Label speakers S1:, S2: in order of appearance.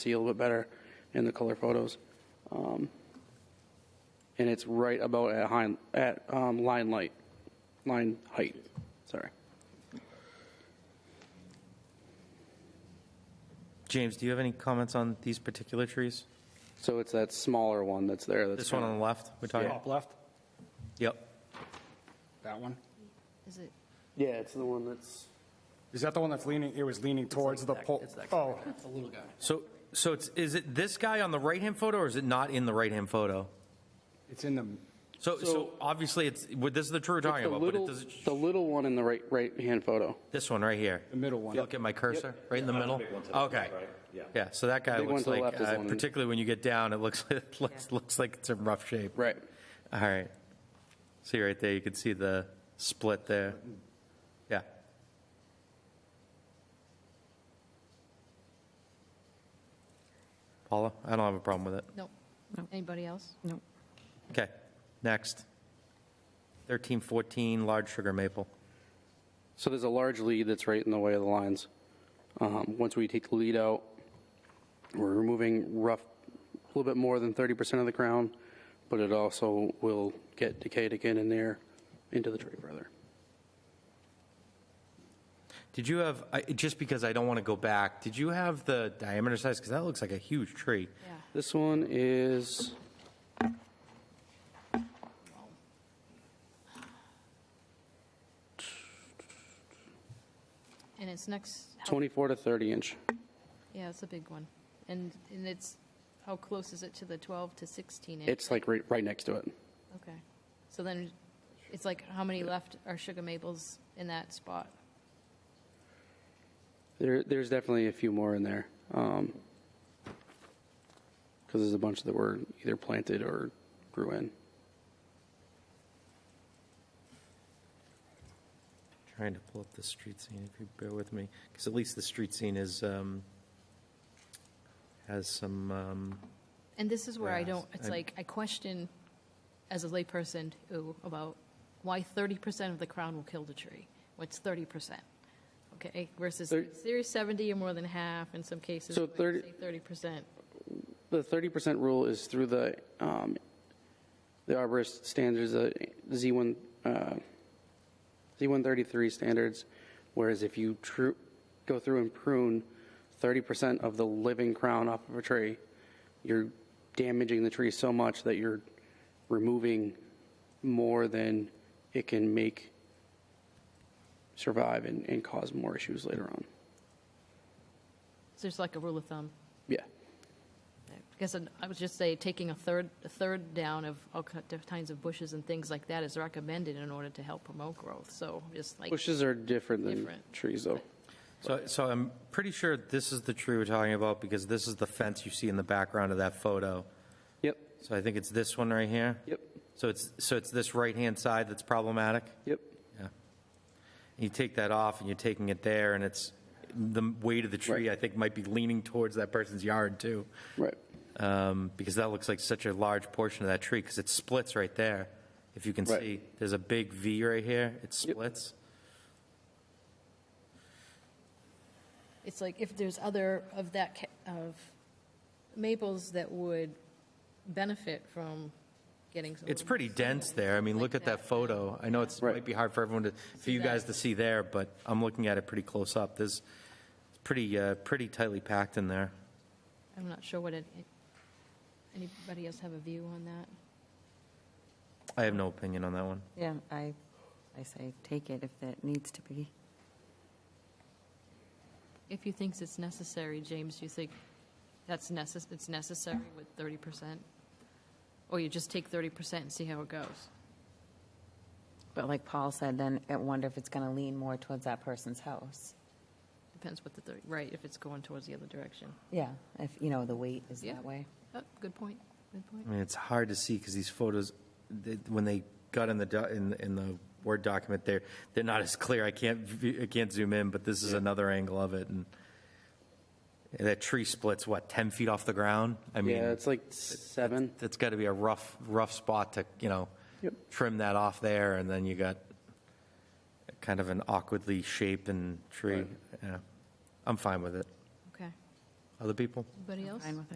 S1: see a little bit better in the color photos. Um, and it's right about at, high, at um, line light, line height. Sorry.
S2: James, do you have any comments on these particular trees?
S1: So it's that smaller one that's there. That's
S2: This one on the left, we're talking?
S3: Top left,
S2: Yep.
S3: that one.
S4: Is it,
S1: yeah, it's the one that's.
S3: Is that the one that's leaning, it was leaning towards the pole? Oh,
S2: So, so it's, is it this guy on the right-hand photo, or is it not in the right-hand photo?
S3: it's in the,
S2: So, so obviously, it's, well, this is the tree we're talking
S1: the,
S2: about, but it
S1: little,
S2: doesn't,
S1: the little one in the right right hand photo.
S2: this one right here.
S3: the middle one.
S2: Look at my cursor, right in the middle? Okay.
S5: Yeah.
S2: Yeah, so that guy
S1: Big one
S2: looks
S1: to the
S2: like,
S1: left is the
S2: uh,
S1: one-
S2: particularly when you get down, it looks, it looks, looks like it's in rough shape.
S1: Right.
S2: All right. See right there, you can see the split there. Yeah. Paula, I don't have a problem with it.
S4: nope.
S6: Nope.
S4: Anybody else?
S6: No.
S2: Okay, next. 1314, large sugar maple.
S1: So there's a large lead that's right in the way of the lines. Um, once we take the lead out, we're removing rough a little bit more than 30% of the crown, but it also will get decayed again in there into the tree further.
S2: Did you have, I- just because I don't want to go back, did you have the diameter size? Because that looks like a huge tree.
S4: Yeah.
S1: This one is
S4: And it's next,
S1: 24 to 30 inch.
S4: yeah, it's a big one. And, and it's, how close is it to the 12 to 16 inch?
S1: It's like right, right next to it.
S4: Okay. So then it's like, how many left are sugar maples in that spot?
S1: There, there's definitely a few more in there. Um 'cause because there's a bunch that were either planted or grew in.
S2: Trying to pull up the street scene, if you bear with me, because at least the street scene is, um, has some, um,
S4: And this is where I don't,
S2: Grass.
S4: it's
S2: I'm-
S4: like, I question as a layperson, ooh, about why 30% of the crown will kill the tree. What's 30%? Okay, versus
S1: Thir-
S4: series 70 or more than half in some cases.
S1: So
S4: where you
S1: 30
S4: say 30%.
S1: The thirty percent rule is through the um, the arborist standards, the Z one uh, Z one thirty three standards. Whereas if you tru- go through and prune thirty percent of the living crown off of a tree, you're damaging the tree so much that you're removing more than it can make survive and, and cause more issues later on.
S4: So there's like a rule of thumb.
S1: Yeah.
S4: Because I would just say taking a third, a third down of all ki- different kinds of bushes and things like that is recommended in order to help promote growth. So just like,
S1: Bushes are different than
S4: Different.
S1: trees though.
S2: so, so I'm pretty sure this is the tree we're talking about, because this is the fence you see in the background of that photo.
S1: Yep.
S2: So I think it's this one right here?
S1: Yep.
S2: So it's, so it's this right-hand side that's problematic?
S1: Yep.
S2: Yeah. You take that off and you're taking it there and it's, the weight of the tree, I
S1: Right.
S2: think, might be leaning towards that person's yard too.
S1: Right.
S2: Um, because that looks like such a large portion of that tree because it splits right there. If you can
S1: Right.
S2: see, there's a big V right here. It splits.
S4: it's like if there's other of that, ca- of maples that would benefit from getting some.
S2: It's pretty dense there. I mean, look at that photo. I know it's,
S1: Right.
S2: might be hard for everyone to, for you
S4: that.
S2: guys to see there, but I'm looking at it pretty close up. There's, it's pretty, uh, pretty tightly packed in there.
S4: I'm not sure what it, anybody else have a view on that?
S2: I have no opinion on that one.
S6: Yeah, I, I say take it if that needs to be.
S4: If you thinks it's necessary, James, do you think that's necess, it's necessary with thirty percent? Or you just take thirty percent and see how it goes?
S6: But like Paul said, then I wonder if it's going to lean more towards that person's house.
S4: Depends what the thirty, right, if it's going towards the other direction.
S6: Yeah, if, you know, the weight is
S4: Yeah.
S6: that way.
S4: Oh, good point, good point.
S2: I mean, it's hard to see because these photos, they- when they got in the, do- in, in the Word document there, they're not as clear. I can't, view- I can't zoom in, but this is another angle of it and and that tree splits, what, 10 feet off the ground? I
S1: Yeah,
S2: mean,
S1: it's like seven.
S2: that's got to be a rough, rough spot to, you know,
S1: Yep.
S2: trim that off there and then you got kind of an awkwardly shaped and tree. Yeah. I'm fine with it.
S4: Okay.
S7: Other people?
S8: Anybody else?
S4: Fine with